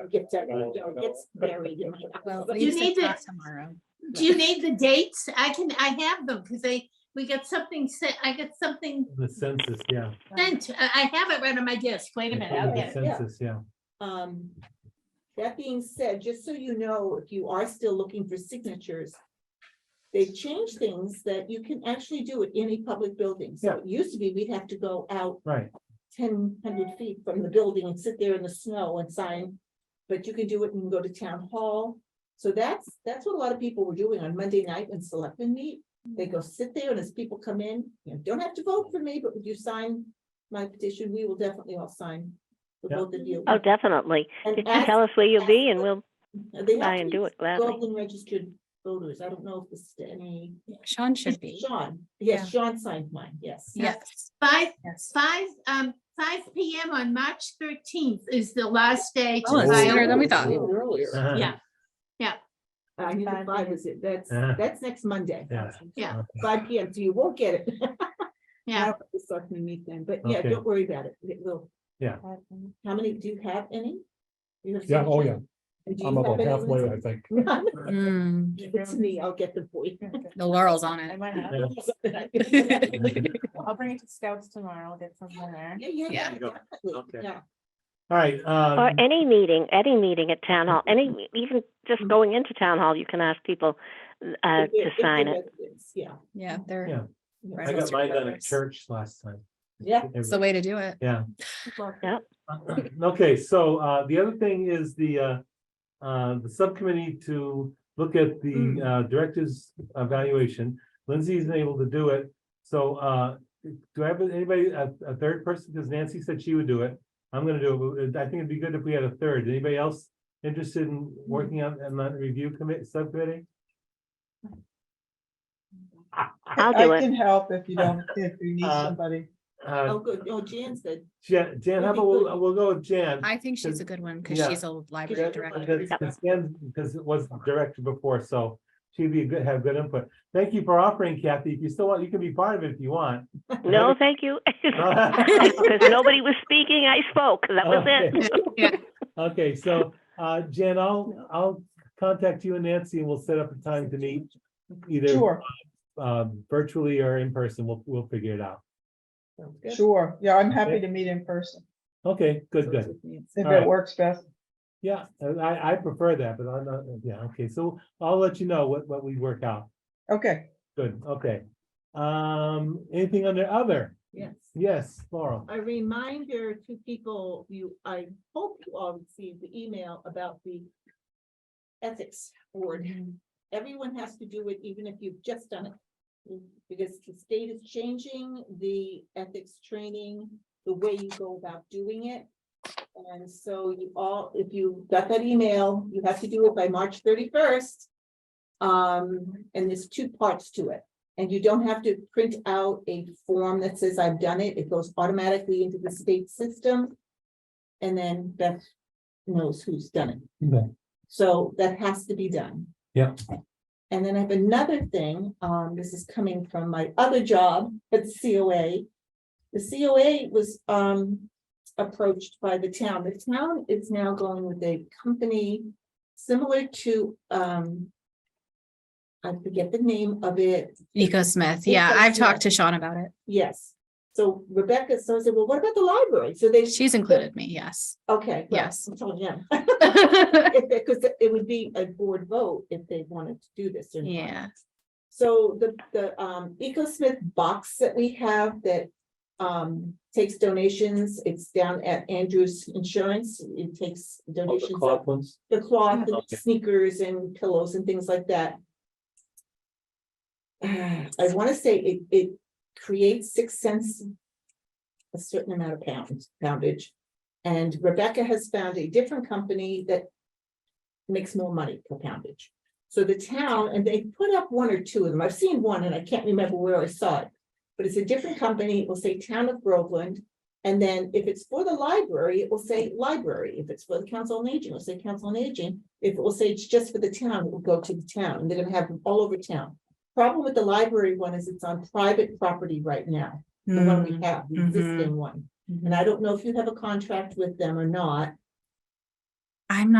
or gets, a- or gets buried in my house. Well, at You least need it's to- not tomorrow. Do you need the dates? I can, I have them because I, we got something sent, I got something The census, yeah. sent. I, I have it right on my desk. Wait a They minute, call I'll it the get it. yeah. Census, yeah. Um, that being said, just so you know, if you are still looking for signatures, they've changed things that you can actually do at any public building. So Yeah. it used to be we'd have to go out Right, ten hundred feet from the building and sit there in the snow and sign. But you can do it and go to town hall. So that's, that's what a lot of people were doing on Monday night when selectmen meet. They go sit there and as people come in, you know, don't have to vote for me, but would you sign my petition? We will definitely all sign. The Yeah. both of you. Oh, definitely. And Just ask- tell us where you'll be and we'll they have try to and be do it gladly. Groveland registered voters. I don't know if this is any. Sean should be. Sean, yes, Sean signed mine, yes. Yes, Five, yes. five, um, five P M on March thirteenth is the last day. to Oh, it's Oh. sooner file. than we thought. Uh-huh. Earlier. Yeah, I knew the five was it. That's, Uh-huh. that's next Monday. Yeah. Yeah. Five P M, so you won't get it. yeah. The selectmen meet then, but yeah, Okay. don't worry about it. It will. Yeah. How many, do you have any? You have Yeah, some? oh, yeah. And do you I'm have about any, halfway, I Lindsay? think. Mm, Give it to me, I'll get the boy. The laurel's on it. Yeah. I'll bring it to scouts tomorrow, get some there. Yeah, yeah, yeah. Yeah. definitely, Okay. yeah. Uh, All right, Or um, any meeting, any meeting at town hall, any, even Mm-hmm. just going into town hall, you can ask people uh, If they're- to if they're sign it. residents, Yeah. Yeah, Yeah. they're, yeah. Right. I got mine done at Brothers. church last time. Yeah. it's the way to do it. Yeah. Yep. Okay, so, uh, the other thing is the, uh, uh, the subcommittee to look at the, uh, director's evaluation. Lindsay isn't able to do it, so, uh, do I have anybody, a, a third person, because Nancy said she would do it. I'm gonna do it, but I think it'd be good if we had a third. Anybody else interested in working on, on that review committee, subcommittee? I'll do I it. can help if you don't, if you need Uh, somebody. Uh, Oh, good. Oh, Jan's good. Jan, Jan, how That'd be about, good. we'll, we'll go with Jan. I think she's a good one because Yeah. she's a library director. Because because it was directed before, so she'd be good, have good input. Thank you for offering Kathy. If you still want, you can be part of it if you want. No, thank you. Oh. Because nobody was speaking, I spoke. That was it. Okay. Okay, so uh Jen, I'll I'll contact you and Nancy and we'll set up a time to meet either Sure, um virtually or in person. We'll we'll figure it out. Sounds good. sure. Yeah, I'm Okay. happy to meet in person Okay, good, good. if All right. it works best. Yeah, and I I prefer that, but I'm not, yeah, okay, so I'll let you know what what we work out. Okay. Good, okay. Um, anything under other? Yes. Yes, Laurel. a reminder to people, you, I hope you all received the email about the ethics board. Everyone has to do it, even if you've just done it. Because the state is changing the ethics training, the way you go about doing it. And so you all, if you got that email, you have to do it by March thirty-first. Um, and there's two parts to it. And you don't have to print out a form that says I've done it. It goes automatically into the state system. And then Beth knows who's done it. Okay. So that has to be done. Yeah. And then I have another thing, um, this is coming from my other job at COA. The COA was, um, approached by the town. The town is now going with a company similar to, um, I forget the name of it. Nico Smith. Yeah, I've Smith. talked to Sean about it. Yes. So Rebecca, so I said, well, what about the library? So they, She's included me, yes. okay. well, Yes. I'm telling them. Because it would be a board vote if they wanted to do this or not. Yeah. So the, the, um, EcoSmith box that we have that, um, takes donations, it's down at Andrew's Insurance. It takes donations. ones? The cloth, and Okay. sneakers and pillows and things like that. I want to say it, it creates six cents. A certain amount of pounds, poundage. And Rebecca has found a different company that. Makes more money per poundage. So the town, and they put up one or two of them. I've seen one and I can't remember where I saw it. But it's a different company. It will say Town of Groveland. And then if it's for the library, it will say library. If it's for the council on aging, it'll say council on aging. If it will say it's just for the town, it will go to the town. And they're gonna have them all over town. Problem with the library one is it's on private property right now, the one we Mm, have, the mhm. existing one. And I don't know if you have a contract with them or not. I'm not